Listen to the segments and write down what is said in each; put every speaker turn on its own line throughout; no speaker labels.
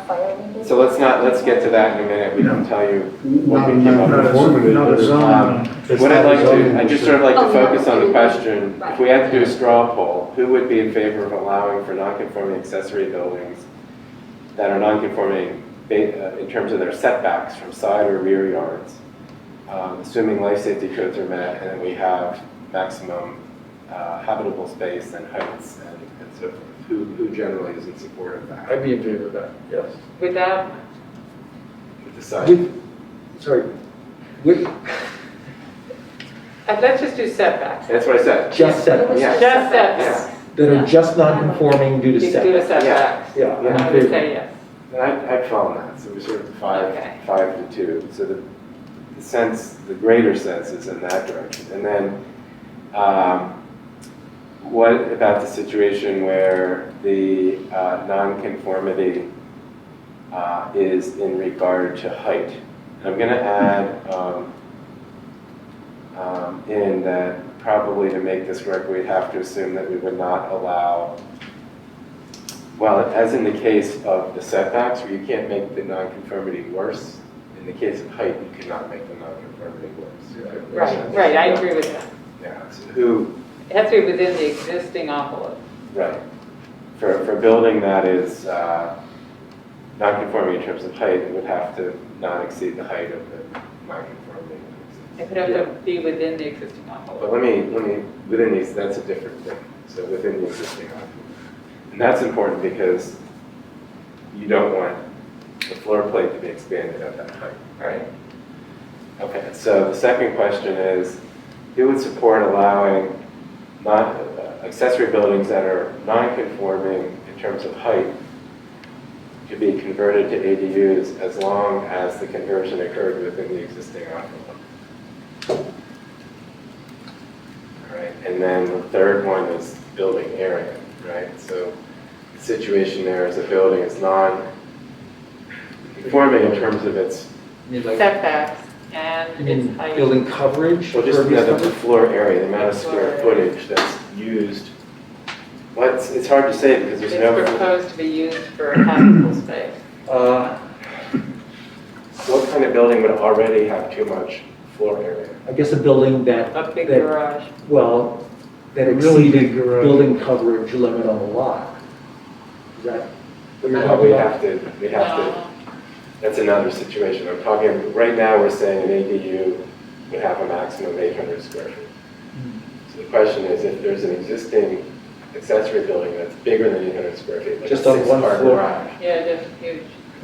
fire windows.
So let's not, let's get to that in a minute, we can tell you.
Not,
we keep
not,
on
not a
performing
zone,
it,
not
but
a
it's
zone.
Um, What I'd like to, I just sort of like
Oh,
to
no.
focus on the question, if we had to do a straw poll, who would be in favor of allowing for non-conforming accessory buildings that are non-conforming ba- uh, in terms of their setbacks from side or rear yards, um, assuming life safety codes are met, and we have maximum uh, habitable space and heights and and so forth? Who, who generally is in support of that?
I'd be in favor of that, yes.
Without,
Decide.
With, sorry, with
and uh, let's just do setbacks.
That's what I said.
just setbacks,
Yeah.
Just
Yeah.
setbacks.
that are just not conforming due
You
to
can do the
setbacks.
setbacks.
Yeah, I'm
I
in
would
favor.
say yes.
And I, I'd follow that, so we're sort of five,
Okay.
five to two, so the, the sense, the greater sense is in that direction. And then, um, what about the situation where the, uh, nonconformity, uh, is in regard to height? And I'm gonna add, um, um, in that probably to make this work, we'd have to assume that we would not allow well, as in the case of the setbacks, where you can't make the nonconformity worse, in the case of height, you cannot make the nonconformity worse.
Right, right, I agree with that.
Yeah, so who,
It has to be within the existing envelope.
right, for, for a building that is uh, nonconforming in terms of height, it would have to not exceed the height of the nonconformity.
It would have to be within the existing envelope.
But let me, let me, within these, that's a different thing, so within the existing envelope. And that's important because you don't want the floor plate to be expanded at that height, right? Okay, so the second question is, who would support allowing non, accessory buildings that are non-conforming in terms of height to be converted to ADUs as long as the conversion occurred within the existing envelope? All right, and then the third one is building area, right? So the situation there is a building is non-conforming in terms of its,
You mean like,
Setbacks
you
and its
mean
height.
building coverage?
well, just
impervious
the the
coverage?
floor area, the amount of square
Floor area.
footage that's used. Well, it's, it's hard to say because there's no,
It's proposed to be used for habitable space.
Uh,
what kind of building would already have too much floor area?
I guess a building that,
A big
That-
garage.
well, that
Really big
exceeded
garage.
building coverage limit on the lot. Is that what you're
Well, we
talking about?
have to, we have to. That's another situation. I'm talking, right now, we're saying an ADU would have a maximum of 800 square feet.
Hmm.
So the question is, if there's an existing accessory building that's bigger than 800 square feet, like a
Just on one
six-car
floor.
garage,
No. Yeah, just huge.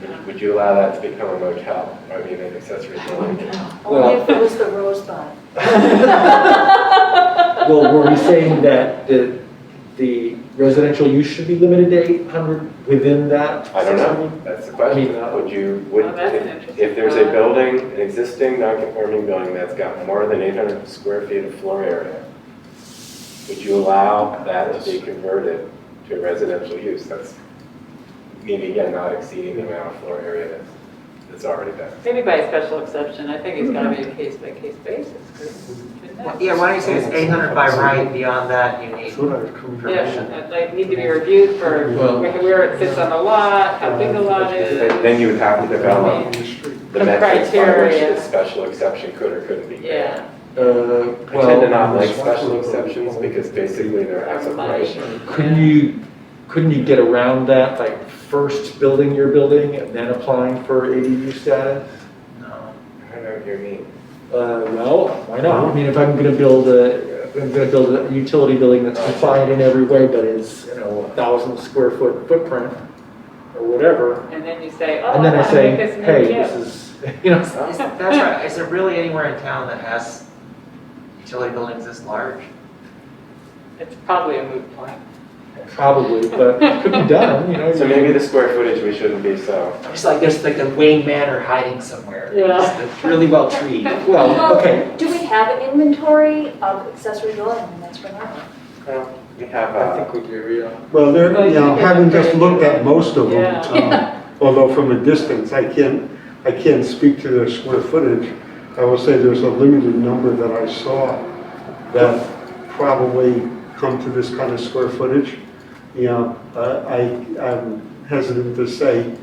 would- would you allow that to become a motel, I mean, an accessory building?
Only if it was the Rosebud.
Well, were we saying that the, the residential use should be limited to eight hundred within that?
I don't know, that's the question.
I mean,
Would you, would,
Oh, that's an
if
interesting
if there's a
thought.
building, an existing non-conforming building that's got more than 800 square feet of floor area, would you allow that to be converted to a residential use? That's maybe, again, not exceeding the amount of floor area that's, that's already there.
Maybe by special exception, I think it's gotta be a case-by-case basis.
Mm-hmm.
couldn't it?
Yeah, why don't you say it's 800 by right, beyond that you need
That's what I was coming from.
Yeah, and they need to be reviewed for
Well-
where it sits on the lot, how big the lot is.
And Then you would have to develop
The street.
the
The
metrics by which
criteria.
this special exception could or couldn't be granted.
Yeah,
Uh,
I
well.
tend to not like special exceptions because basically they're as of right.
Couldn't you, couldn't you get around that, like first building your building and then applying for ADU status?
I don't know what you mean.
Uh, well, why not? I mean, if I'm gonna build a, if I'm gonna build a utility building that's compliant in every way, but is, you know, a thousand square foot footprint or whatever.
and then you say, oh, I
And then I
wanna
say,
make this
hey,
new
this
deal.
is, you know,
Is- That's right, is there really anywhere in town that has utility buildings this large?
It's probably a moot point.
probably, but it could be done, you know.
So maybe the square footage, we shouldn't be so.
I'm just like, there's like a Wayne Manor hiding somewhere.
Yeah.
It's Really well treated.
Well, okay,
Do we have an inventory of accessory dwelling units for now?
Well, We have,
I
uh,
think we do, yeah.
Well,
Well,
there, you know,
you can
having
get
just
it.
looked at most of them,
Yeah.
uh, although from a distance, I can't, I can't speak to their square footage. I will say there's a limited number that I saw that probably come to this kind of square footage. You know, uh, I, I'm hesitant to say